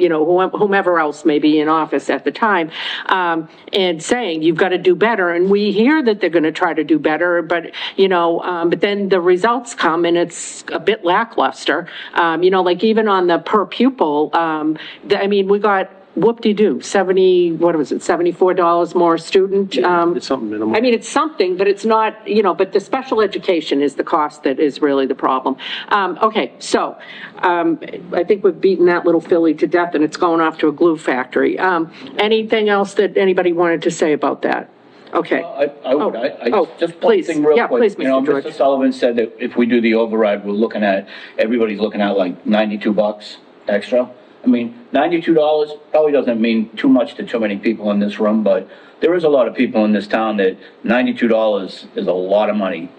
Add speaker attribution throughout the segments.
Speaker 1: you know, whom- whomever else may be in office at the time, um, and saying, you've got to do better. And we hear that they're going to try to do better, but, you know, um, but then the results come and it's a bit lackluster. Um, you know, like even on the per pupil, um, the, I mean, we got whoop-de-doo, 70, what was it, $74 more student? um,
Speaker 2: It's something minimal.
Speaker 1: I mean, it's something, but it's not, you know, but the special education is the cost that is really the problem. Um, okay, so, um, I think we've beaten that little filly to death and it's going off to a glue factory. Um, anything else that anybody wanted to say about that? Okay.
Speaker 3: I, I would, I,
Speaker 1: Oh,
Speaker 3: I, just one
Speaker 1: please.
Speaker 3: thing real quick.
Speaker 1: Yeah, please,
Speaker 3: You know,
Speaker 1: Mr. George.
Speaker 3: Mr. Sullivan said that if we do the override, we're looking at, everybody's looking at like ninety-two bucks extra. I mean, ninety-two dollars probably doesn't mean too much to too many people in this room, but there is a lot of people in this town that ninety-two dollars is a lot of money.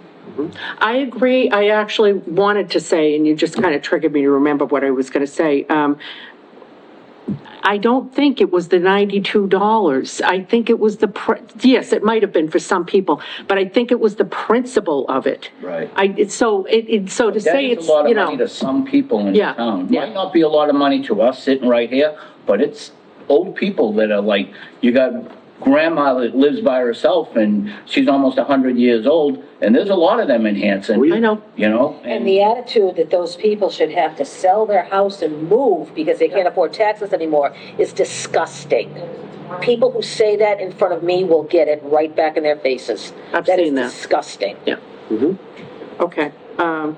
Speaker 1: I agree. I actually wanted to say, and you just kind of triggered me to remember what I was going to say. Um, I don't think it was the $92. I think it was the, pr- yes, it might have been for some people, but I think it was the principle of it.
Speaker 3: Right.
Speaker 1: I, it's so, it, it, so to
Speaker 3: That
Speaker 1: say
Speaker 3: is
Speaker 1: it's,
Speaker 3: a lot
Speaker 1: you
Speaker 3: of money to
Speaker 1: know,
Speaker 3: some people in
Speaker 1: Yeah,
Speaker 3: town.
Speaker 1: yeah.
Speaker 3: Might not be a lot of money to us sitting right here, but it's old people that are like, you got grandma that lives by herself and she's almost a hundred years old, and there's a lot of them in Hanson.
Speaker 1: I know.
Speaker 3: You know?
Speaker 4: And the attitude that those people should have to sell their house and move because they can't afford taxes anymore is disgusting. People who say that in front of me will get it right back in their faces.
Speaker 1: I've seen that.
Speaker 4: That is disgusting.
Speaker 1: yeah.
Speaker 5: Mm-hmm.
Speaker 1: Okay. Um,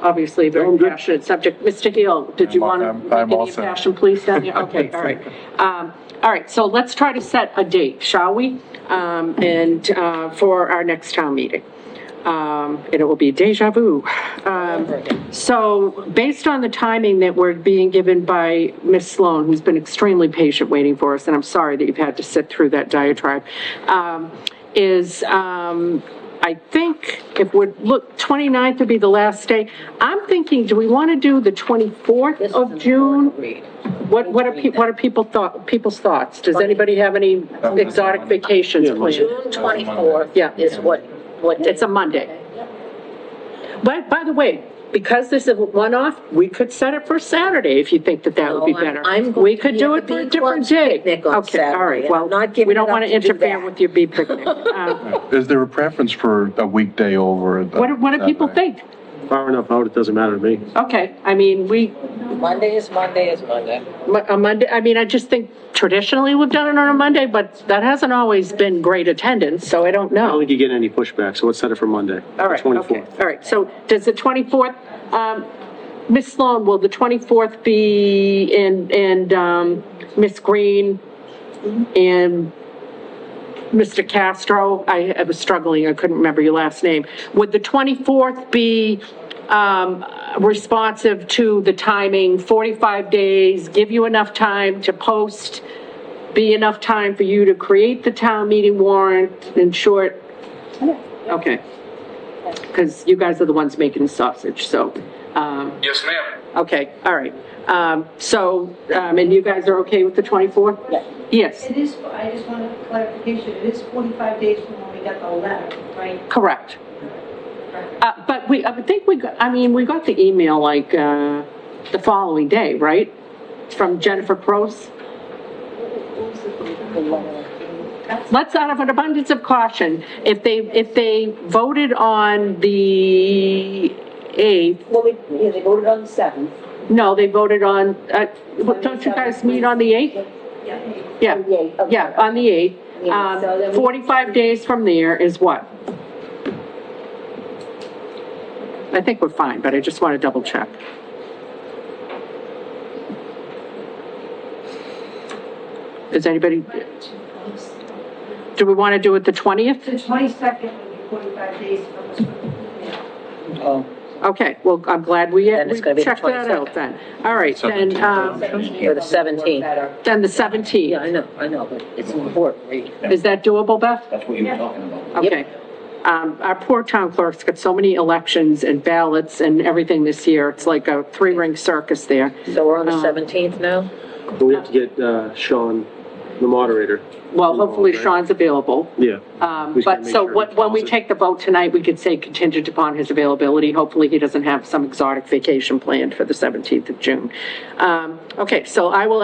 Speaker 1: obviously, a very
Speaker 2: Sound good?
Speaker 1: passionate subject. Mr. Hill, did you
Speaker 5: I'm-
Speaker 1: want to
Speaker 5: I'm-
Speaker 1: make
Speaker 5: I'm all
Speaker 1: any
Speaker 5: set.
Speaker 1: passion please down there? Okay, all right. Um, all right, so let's try to set a date, shall we? Um, and, uh, for our next town meeting. Um, and it will be deja vu. Um, so based on the timing that we're being given by Ms. Sloan, who's been extremely patient waiting for us, and I'm sorry that you've had to sit through that diatribe, um, is, um, I think if we're, look, 29th would be the last day. I'm thinking, do we want to do the 24th of June? What, what are, pe- what are people thought, people's thoughts? Does anybody have any exotic vacations planned?
Speaker 4: June 24th
Speaker 1: Yeah.
Speaker 4: is what, what
Speaker 1: It's a Monday. But, by the way, because this is a one-off, we could set it for Saturday if you think that that would be
Speaker 4: No, Oh, I'm-
Speaker 1: better.
Speaker 4: I'm going
Speaker 1: We
Speaker 4: to
Speaker 1: could
Speaker 4: be
Speaker 1: do
Speaker 4: at
Speaker 1: it
Speaker 4: the
Speaker 1: for a
Speaker 4: Bee
Speaker 1: different
Speaker 4: Club's
Speaker 1: day.
Speaker 4: picnic on
Speaker 1: Okay, all
Speaker 4: Saturday,
Speaker 1: right,
Speaker 4: and
Speaker 1: well,
Speaker 4: I'm not giving
Speaker 1: we don't
Speaker 4: it up
Speaker 1: want to
Speaker 4: to do
Speaker 1: interfere
Speaker 4: that.
Speaker 1: with your bee picnic. Um,
Speaker 5: Is there a preference for a weekday over?
Speaker 1: What, do- what do people think?
Speaker 2: Far enough out, it doesn't matter to me.
Speaker 1: Okay, I mean, we,
Speaker 4: Monday is Monday is Monday.
Speaker 1: Mo- a Monday, I mean, I just think traditionally we've done it on a Monday, but that hasn't always been great attendance, so I don't
Speaker 2: I don't
Speaker 1: know.
Speaker 2: think you get any pushback, so let's set it for Monday.
Speaker 1: All right, okay,
Speaker 2: 24th.
Speaker 1: all right, so does the 24th, um, Ms. Sloan, will the 24th be, and, and, um, Ms. Green and Mr. Castro, I, I was struggling, I couldn't remember your last name. Would the 24th be, um, responsive to the timing, 45 days, give you enough time to post, be enough time for you to create the town meeting warrant, in short? Okay. Because you guys are the ones making the sausage, so, um,
Speaker 6: Yes, ma'am.
Speaker 1: okay, all right. Um, so, um, and you guys are okay with the 24th?
Speaker 4: Yeah.
Speaker 1: Yes,
Speaker 7: It is, I just want a clarification, it is 45 days from when we got the letter, right?
Speaker 1: correct. Uh, but we, I think we, got- I mean, we got the email like, uh, the following day, right? From Jennifer Pross? Let's, out of an abundance of caution, if they, if they voted on the 8th,
Speaker 4: Well, we, yeah, they voted on the 7th.
Speaker 1: no, they voted on, uh, what- don't you guys meet on the 8th?
Speaker 7: Yeah.
Speaker 1: Yeah, yeah, on the 8th.
Speaker 4: Yeah, so then
Speaker 1: Um,
Speaker 4: we-
Speaker 1: 45 days from there is what? I think we're fine, but I just want to double check. Does anybody, do we want to do it the 20th?
Speaker 7: The 22nd would be 45 days from this one.
Speaker 3: Oh,
Speaker 1: Okay, well, I'm glad we
Speaker 4: Then it's
Speaker 1: we
Speaker 4: gonna be the
Speaker 1: checked that out then. All right, then, um,
Speaker 4: Or the 17th.
Speaker 1: then the
Speaker 4: Yeah,
Speaker 1: 17th.
Speaker 4: I know, I know, but it's important, right?
Speaker 1: Is that doable, Beth?
Speaker 3: that's what you were talking about.
Speaker 1: Okay. Um, our poor town clerk's got so many elections and ballots and everything this year. It's like a three-ring circus there.
Speaker 4: So we're on the
Speaker 1: Um,
Speaker 4: 17th now?
Speaker 2: But we have to get uh, Sean the moderator.
Speaker 1: Well, hopefully
Speaker 2: Right.
Speaker 1: Sean's available.
Speaker 2: Yeah.
Speaker 1: Um, But so what- when we take the vote tonight, we could say contingent upon his availability. Hopefully, he doesn't have some exotic vacation planned for the 17th of June. Um, Okay, so I will